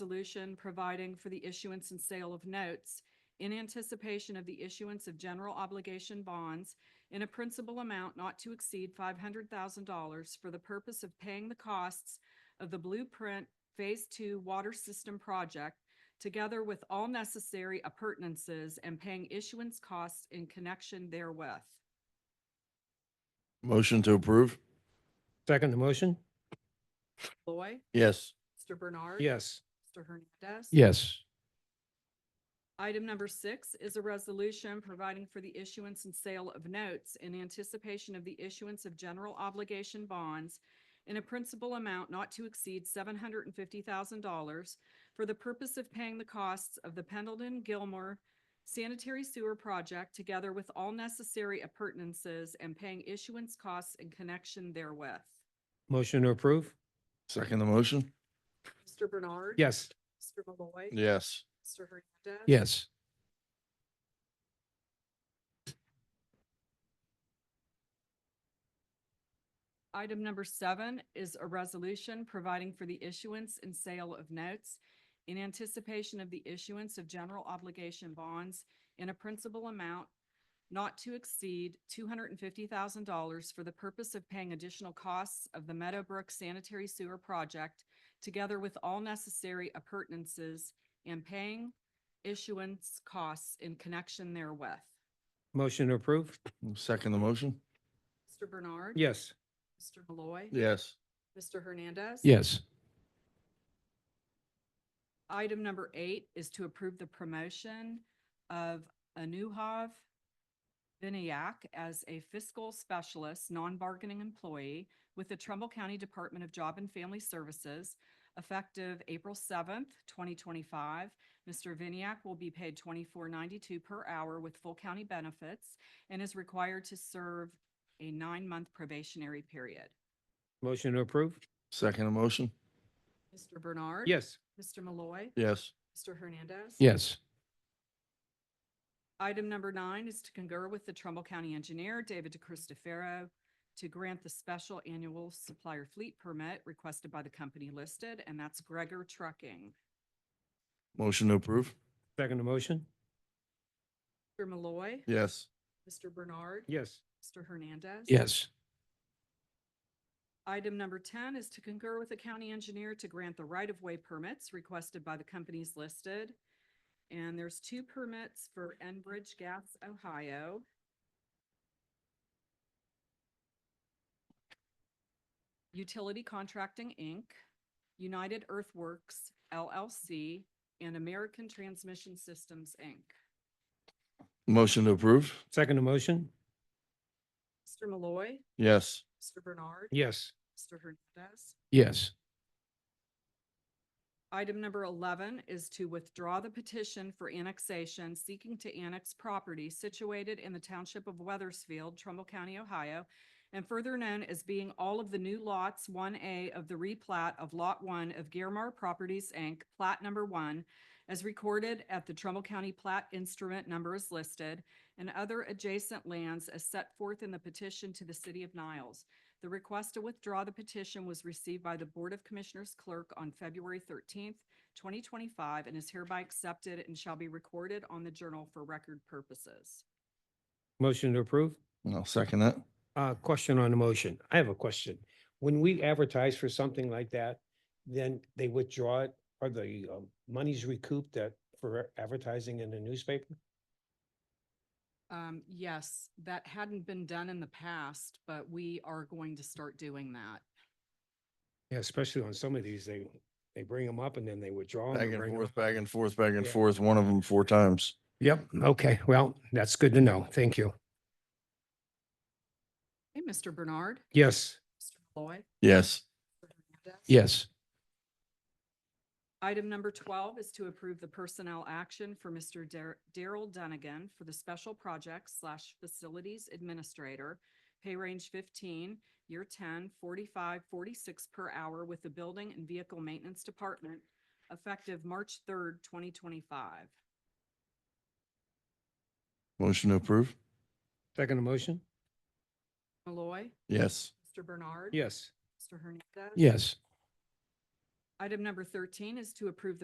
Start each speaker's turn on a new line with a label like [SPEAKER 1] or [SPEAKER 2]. [SPEAKER 1] resolution providing for the issuance and sale of notes in anticipation of the issuance of general obligation bonds in a principal amount not to exceed five hundred thousand dollars for the purpose of paying the costs of the Blueprint Phase Two Water System Project, together with all necessary appurtenances and paying issuance costs in connection therewith.
[SPEAKER 2] Motion to approve?
[SPEAKER 3] Second the motion?
[SPEAKER 1] Loy,
[SPEAKER 2] Yes.
[SPEAKER 1] Mr. Bernard.
[SPEAKER 3] Yes.
[SPEAKER 1] Mr. Hernandez.
[SPEAKER 3] Yes.
[SPEAKER 1] Item number six is a resolution providing for the issuance and sale of notes in anticipation of the issuance of general obligation bonds in a principal amount not to exceed seven hundred and fifty thousand dollars for the purpose of paying the costs of the Pendleton Gilmore sanitary sewer project together with all necessary appurtenances and paying issuance costs in connection therewith.
[SPEAKER 3] Motion to approve?
[SPEAKER 2] Second the motion?
[SPEAKER 1] Mr. Bernard.
[SPEAKER 3] Yes.
[SPEAKER 1] Mr. Malloy.
[SPEAKER 2] Yes.
[SPEAKER 1] Mr. Hernandez.
[SPEAKER 3] Yes.
[SPEAKER 1] Item number seven is a resolution providing for the issuance and sale of notes in anticipation of the issuance of general obligation bonds in a principal amount not to exceed two hundred and fifty thousand dollars for the purpose of paying additional costs of the Meadowbrook Sanitary Sewer Project, together with all necessary appurtenances and paying issuance costs in connection therewith.
[SPEAKER 3] Motion to approve?
[SPEAKER 2] Second the motion?
[SPEAKER 1] Mr. Bernard.
[SPEAKER 3] Yes.
[SPEAKER 1] Mr. Malloy.
[SPEAKER 2] Yes.
[SPEAKER 1] Mr. Hernandez.
[SPEAKER 3] Yes.
[SPEAKER 1] Item number eight is to approve the promotion of Anuhav Vinayak as a fiscal specialist, non-bargaining employee with the Trumbull County Department of Job and Family Services effective April seventh, twenty twenty-five. Mr. Vinayak will be paid twenty-four ninety-two per hour with full county benefits and is required to serve a nine-month probationary period.
[SPEAKER 3] Motion to approve?
[SPEAKER 2] Second the motion?
[SPEAKER 1] Mr. Bernard.
[SPEAKER 3] Yes.
[SPEAKER 1] Mr. Malloy.
[SPEAKER 2] Yes.
[SPEAKER 1] Mr. Hernandez.
[SPEAKER 3] Yes.
[SPEAKER 1] Item number nine is to concur with the Trumbull County Engineer, David DeCristofaro, to grant the special annual supplier fleet permit requested by the company listed, and that's Gregor Trucking.
[SPEAKER 2] Motion to approve?
[SPEAKER 3] Second the motion?
[SPEAKER 1] Mr. Malloy.
[SPEAKER 2] Yes.
[SPEAKER 1] Mr. Bernard.
[SPEAKER 3] Yes.
[SPEAKER 1] Mr. Hernandez.
[SPEAKER 3] Yes.
[SPEAKER 1] Item number ten is to concur with the county engineer to grant the right-of-way permits requested by the companies listed. And there's two permits for Enbridge Gas, Ohio. Utility Contracting, Inc., United Earthworks LLC, and American Transmission Systems, Inc.
[SPEAKER 2] Motion to approve?
[SPEAKER 3] Second the motion?
[SPEAKER 1] Mr. Malloy.
[SPEAKER 2] Yes.
[SPEAKER 1] Mr. Bernard.
[SPEAKER 3] Yes.
[SPEAKER 1] Mr. Hernandez.
[SPEAKER 3] Yes.
[SPEAKER 1] Item number eleven is to withdraw the petition for annexation seeking to annex property situated in the township of Weathersfield, Trumbull County, Ohio, and further known as being all of the new lots one A of the replat of Lot One of Guermar Properties, Inc., plat number one, as recorded at the Trumbull County plat instrument number is listed, and other adjacent lands as set forth in the petition to the city of Niles. The request to withdraw the petition was received by the Board of Commissioners clerk on February thirteenth, twenty twenty-five, and is hereby accepted and shall be recorded on the journal for record purposes.
[SPEAKER 3] Motion to approve?
[SPEAKER 2] I'll second that.
[SPEAKER 3] Uh, question on the motion. I have a question. When we advertise for something like that, then they withdraw it? Are the um, monies recouped that for advertising in the newspaper?
[SPEAKER 1] Um, yes, that hadn't been done in the past, but we are going to start doing that.
[SPEAKER 3] Yeah, especially on some of these, they, they bring them up and then they withdraw. 'em
[SPEAKER 2] Back
[SPEAKER 3] or
[SPEAKER 2] and
[SPEAKER 3] bring 'em
[SPEAKER 2] forth,
[SPEAKER 3] up.
[SPEAKER 2] back and forth, back and
[SPEAKER 3] Yeah.
[SPEAKER 2] forth, one of them four times.
[SPEAKER 3] Yep, okay, well, that's good to know. Thank you.
[SPEAKER 1] Hey, Mr. Bernard?
[SPEAKER 3] Yes,
[SPEAKER 1] Mr. Malloy?
[SPEAKER 2] Yes.
[SPEAKER 1] Mr. Hernandez?
[SPEAKER 3] yes.
[SPEAKER 1] Item number twelve is to approve the personnel action for Mr. Dar- Daryl Dunnigan for the Special Projects slash Facilities Administrator, pay range fifteen, year 10, 45, 46 per hour with the Building and Vehicle Maintenance Department, effective March third, twenty twenty-five.
[SPEAKER 2] Motion to approve?
[SPEAKER 3] Second motion?
[SPEAKER 1] Malloy,
[SPEAKER 2] Yes.
[SPEAKER 1] Mr. Bernard.
[SPEAKER 3] Yes.
[SPEAKER 1] Mr. Hernandez.
[SPEAKER 3] Yes.
[SPEAKER 1] Item number thirteen is to approve the